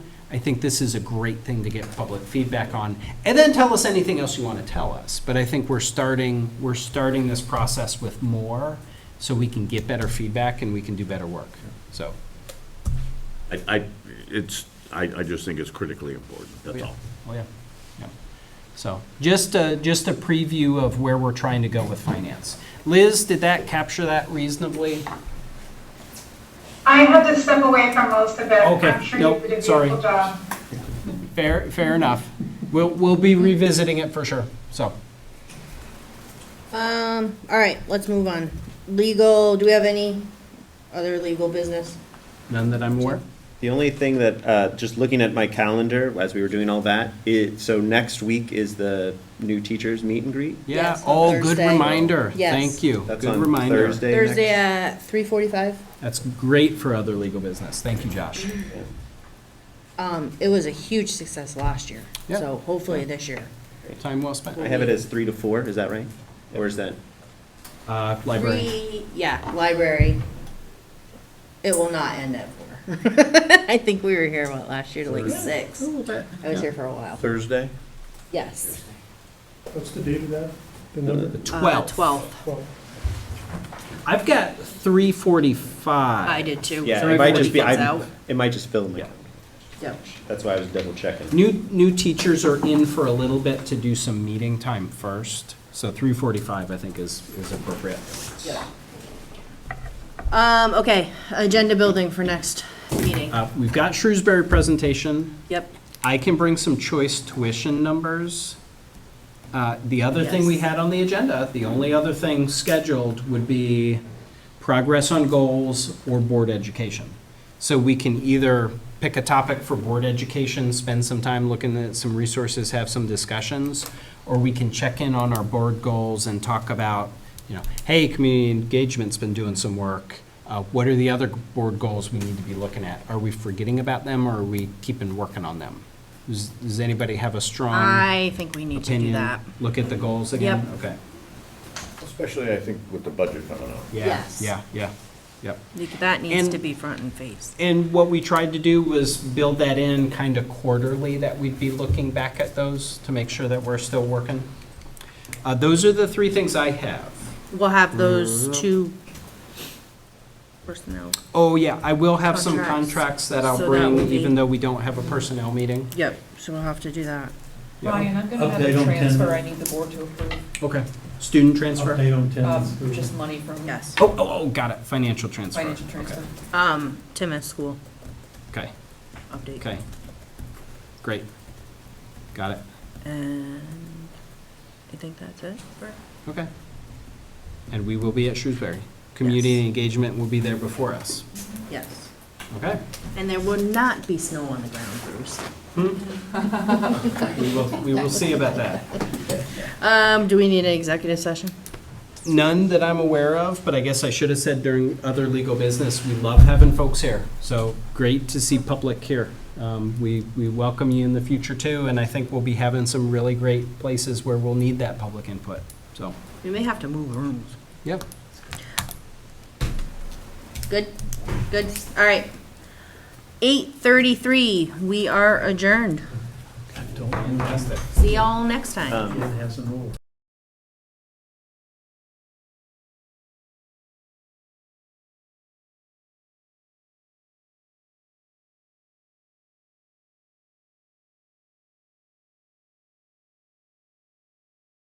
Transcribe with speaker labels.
Speaker 1: I think this is a great thing to get public feedback on. And then tell us anything else you want to tell us. But I think we're starting, we're starting this process with more so we can get better feedback and we can do better work. So,
Speaker 2: I, I, it's, I, I just think it's critically important, that's
Speaker 1: Yeah.
Speaker 2: all.
Speaker 1: oh yeah, yeah. So just a, just a preview of where we're trying to go with finance. Liz, did that capture that reasonably?
Speaker 3: I had to step away from most of it.
Speaker 1: Okay,
Speaker 3: I'm sure you
Speaker 1: nope,
Speaker 3: did a
Speaker 1: sorry.
Speaker 3: beautiful job.
Speaker 1: Fair, fair enough. We'll, we'll be revisiting it for sure, so.
Speaker 4: Um, all right, let's move on. Legal, do we have any other legal business?
Speaker 1: None that I'm aware? of?
Speaker 5: The only thing that, uh, just looking at my calendar as we were doing all that, it, so next week is the new teachers meet and greet.
Speaker 1: Yeah,
Speaker 4: Yes, on
Speaker 1: oh, good
Speaker 4: Thursday.
Speaker 1: reminder.
Speaker 4: Yes.
Speaker 1: Thank you.
Speaker 5: That's
Speaker 1: Good
Speaker 5: on
Speaker 1: reminder.
Speaker 5: Thursday next-
Speaker 4: Thursday at three forty-five.
Speaker 1: That's great for other legal business. Thank you, Josh.
Speaker 4: Um, it was a huge success last year,
Speaker 1: Yeah.
Speaker 4: so hopefully this year.
Speaker 1: Time well spent.
Speaker 5: I have it as three to four, is that right? Or is that,
Speaker 1: Uh, library.
Speaker 4: Three- Yeah, library. It will not end at four. I think we were here, what, last year to like six? I was here for a while.
Speaker 5: Thursday?
Speaker 4: Yes.
Speaker 6: What's the date of that?
Speaker 5: Uh,
Speaker 6: The
Speaker 1: The
Speaker 6: number?
Speaker 1: twelfth.
Speaker 4: Uh, Twelve.
Speaker 6: Well,
Speaker 1: I've got three forty-five.
Speaker 4: I did too.
Speaker 5: Yeah,
Speaker 1: Sorry,
Speaker 5: it might just be,
Speaker 4: everybody
Speaker 5: I,
Speaker 4: gets out.
Speaker 5: it might just fill in my
Speaker 1: Yeah.
Speaker 5: calendar.
Speaker 4: Yep.
Speaker 5: That's why I was double checking.
Speaker 1: New, new teachers are in for a little bit to do some meeting time first, so three forty-five, I think, is, is appropriate.
Speaker 4: Um, okay, agenda building for next meeting.
Speaker 1: Uh, we've got Shrewsbury presentation.
Speaker 4: Yep.
Speaker 1: I can bring some choice tuition numbers. Uh, The other thing we
Speaker 4: Yes.
Speaker 1: had on the agenda, the only other thing scheduled would be progress on goals or board education. So we can either pick a topic for board education, spend some time looking at some resources, have some discussions, or we can check in on our board goals and talk about, you know, hey, community engagement's been doing some work. Uh, What are the other board goals we need to be looking at? Are we forgetting about them or are we keeping working on them? Does does anybody have a strong?
Speaker 4: I think we need to do
Speaker 1: um, opinion,
Speaker 4: that.
Speaker 1: Look at the goals again?
Speaker 4: Yep.
Speaker 1: Okay.
Speaker 2: Especially, I think, with the budget coming up.
Speaker 1: Yeah,
Speaker 4: Yes.
Speaker 1: Yeah, yeah, yep.
Speaker 4: Like, That needs
Speaker 1: And-
Speaker 4: to be front and face.
Speaker 1: And what we tried to do was build that in kind of quarterly, that we'd be looking back at those to make sure that we're still working. Uh, those are the three things I have.
Speaker 4: We'll have those two personnel.
Speaker 1: Oh, yeah, I will have some
Speaker 4: Contracts.
Speaker 1: contracts that I'll
Speaker 4: So that would
Speaker 1: bring,
Speaker 4: be-
Speaker 1: even though we don't have a personnel meeting.
Speaker 4: Yep, so we'll have to do that.
Speaker 7: Ryan, I'm gonna have
Speaker 6: Update
Speaker 7: a
Speaker 6: on
Speaker 7: transfer
Speaker 6: tender.
Speaker 7: I need the board to approve,
Speaker 1: Okay. Student transfer?
Speaker 6: Update on attendance.
Speaker 7: um, just money from
Speaker 4: Yes.
Speaker 1: Oh, oh, oh, got it, financial transfer.
Speaker 7: financial transfer.
Speaker 4: Um, Tim at school
Speaker 1: Okay,
Speaker 4: update.
Speaker 1: okay. Great. Got it.
Speaker 4: And I think that's it.
Speaker 1: Okay. And we will be at Shrewsbury. Community engagement will be there before us.
Speaker 4: Yes.
Speaker 1: Okay?
Speaker 4: And there will not be snow on the ground, Bruce.
Speaker 1: We will, we will see about that.
Speaker 4: Um, do we need an executive session?
Speaker 1: None that I'm aware of, but I guess I should have said during other legal business, we love having folks here. So great to see public here. Um, We, we welcome you in the future too, and I think we'll be having some really great places where we'll need that public input. So,
Speaker 4: We may have to move rooms.
Speaker 1: yeah.
Speaker 4: Good, good, all right. Eight thirty-three, we are adjourned.
Speaker 6: Don't
Speaker 1: Fantastic.
Speaker 4: See y'all next time.
Speaker 5: Um,
Speaker 6: it has an old.